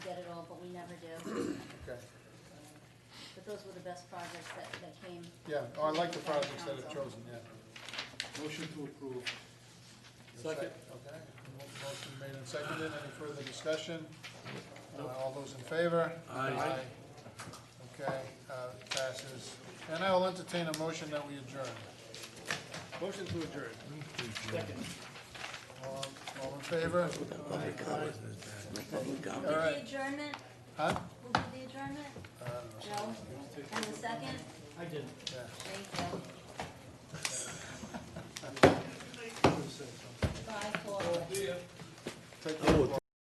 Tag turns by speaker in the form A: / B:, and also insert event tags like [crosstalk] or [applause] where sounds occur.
A: [clears throat]
B: those were the best projects that, that came.
A: Yeah, oh, I like the projects that have chosen, yeah.
C: Motion to approve.
A: Second. Okay, Mo- motion made and seconded, any further discussion? Uh, All those in favor?
C: Aye.
A: Okay, uh, passes. And I will entertain a motion that we adjourn.
C: Motion to adjourn. Second.
A: All all in favor?
B: Who
A: All
B: did the
A: right. Uh,
B: adjournment?
A: Huh?
B: Who did the adjournment? Joe? And the second?
C: I did.
A: Yeah.
B: Thank you.
A: [laughs]
B: Bye, Paul.
A: Take care.